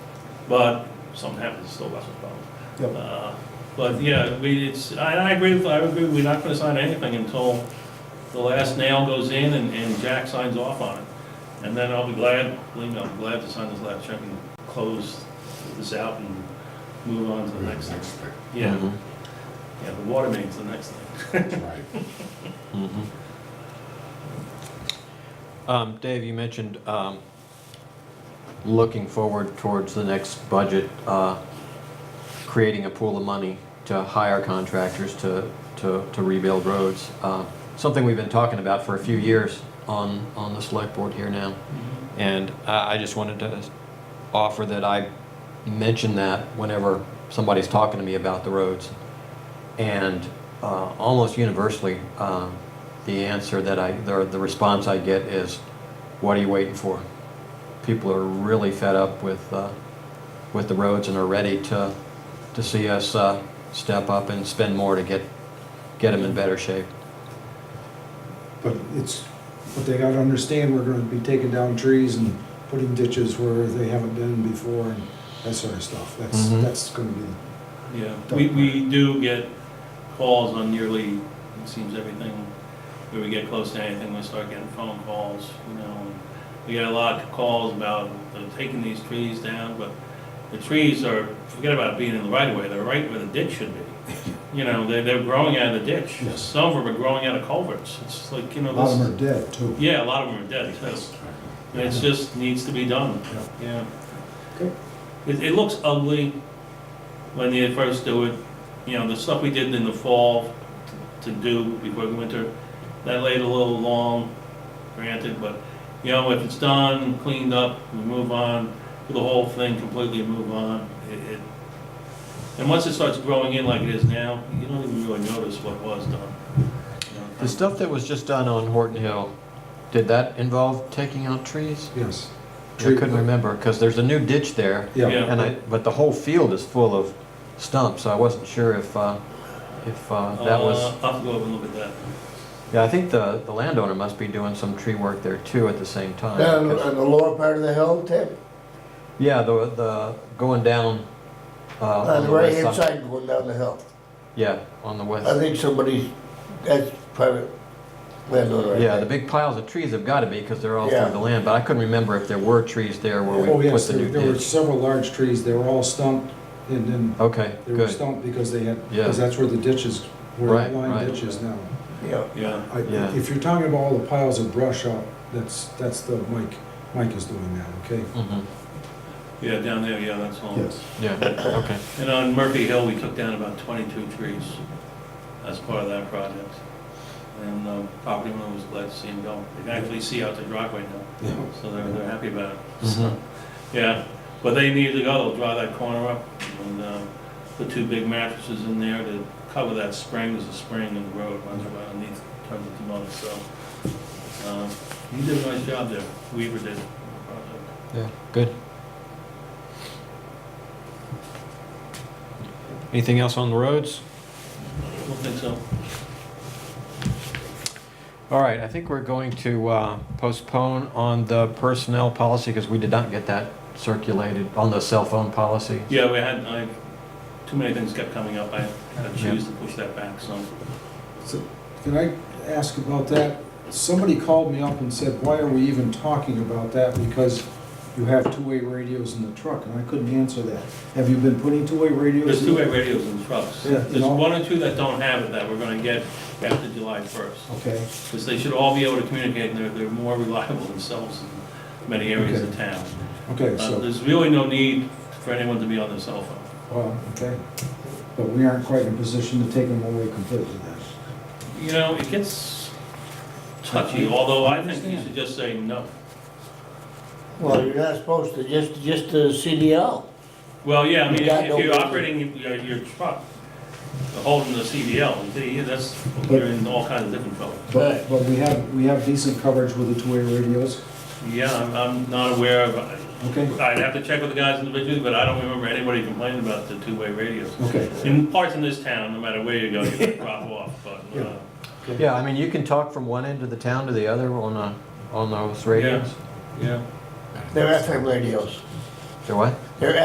but something happens, it's still Wes's problem. Yep. Uh, But yeah, we, it's, I, I agree with, I agree, we're not gonna sign anything until the last nail goes in and, and Jack signs off on it. And then I'll be glad, believe me, I'll be glad to sign this last check and close this out and move on to the next thing. Yeah, yeah, the water main's the next thing. Right. Um, Dave, you mentioned, um, looking forward towards the next budget, uh, creating a pool of money to hire contractors to, to, to rebuild roads. Uh, Something we've been talking about for a few years on, on the select board here now. And I, I just wanted to offer that I mention that whenever somebody's talking to me about the roads. And uh, almost universally, um, the answer that I, the, the response I get is, what are you waiting for? People are really fed up with, uh, with the roads and are ready to, to see us uh, step up and spend more to get, get them in better shape. But it's, but they gotta understand, we're gonna be taking down trees and putting ditches where they haven't been before and that sort of stuff. That's, Mhm. that's gonna be, Yeah, we, we do get calls on nearly, it seems everything, where we get close to anything, we start getting phone calls, you know. and We get a lot of calls about uh, taking these trees down, but the trees are, forget about being in the right of way, they're right where the ditch should be. You know, they're, they're growing out of the ditch. Yes. Some of them are growing out of culverts. It's like, you a know, lot of this, them are dead too. yeah, a lot of them are dead too. And it's just, needs to be done, yeah. Okay. It, it looks ugly when they first do it, you know, the stuff we did in the fall to do before the winter, that laid a little long, granted, but, you know, if it's done, cleaned up, we move on, do the whole thing completely and move on, it, it, and once it starts growing in like it is now, you don't even really notice what was done. you know. The stuff that was just done on Horton Hill, did that involve taking out trees? Yes. I couldn't remember, because there's a new ditch there. Yeah, Yeah. And I, but the whole field is full of stumps, so I wasn't sure if, uh, if, uh, that was, Uh, I'll have to go over and look at that. yeah, I think the, the landowner must be doing some tree work there too at the same time. Down because- on the lower part of the hill, Tim? Yeah, the, the, going down, uh, On on the the west right-hand side. side going down the hill. Yeah, on the I west. think somebody's, that's private landowner right Yeah, the there. big piles of trees have gotta be, because they're all Yeah. through the land, but I couldn't remember if there were trees there where Oh, we put yes, the there new there were ditch. several large trees, they were all stumped and then Okay, they were good. stumped because they had, Yeah. because that's where the ditches, where Right, the line right. ditch is now. Yeah, Yeah, I- Yeah. If you're talking about all the piles of brush out, that's, that's the, Mike, Mike is doing that, okay? Mhm, yeah, down there, yeah, that's all. Yeah, okay. And on Murphy Hill, we took down about 22 trees as part of that project. And the property owner was glad to see them go. They can actually see out the driveway now, Yeah. so they're, they're happy about it. Mhm. So, Yeah, but they needed to go, they'll draw that corner up and uh, put two big mattresses in there to cover that spring, there's a spring in the road, runs right underneath, turns into mud, so. um, You did a nice job there, Weaver did. Yeah, good. Anything else on the roads? I don't think so. All right, I think we're going to uh, postpone on the personnel policy because we did not get that circulated on the cell phone policy. Yeah, we had, I, too many things kept coming up, I had to choose to push that back, so. So, Can I ask about that? Somebody called me up and said, why are we even talking about that? Because you have two-way radios in the truck, and I couldn't answer that. Have you been putting two-way radios? There's in? two-way radios in the trucks. Yeah, There's you know. one or two that don't have it that we're gonna get after July first. Okay, Because they should all be able to communicate, and they're, they're more reliable themselves in many areas of town. okay, Uh, so, There's really no need for anyone to be on their cell phone. well, okay. But we aren't quite in a position to take them away completely then. You know, it gets touchy, although I think you should just say no. well, you're not supposed to, just, just the CDL. Well, yeah, I mean, You've got if no you're way to- operating your, your truck, holding the CDL, you- that's, you're in all kinds of different trouble. But, but we have, we have decent coverage with the two-way radios, Yeah, I'm, I'm not aware of, I'd okay? have to check with the guys individually, but I don't remember anybody complaining about the two-way radios. Okay. In parts in this town, no matter where you go, you're gonna drop off, but, uh, Yeah, I mean, you can talk from one end of the town to the other on a, on those radios. yeah. They're FM radios. They're what?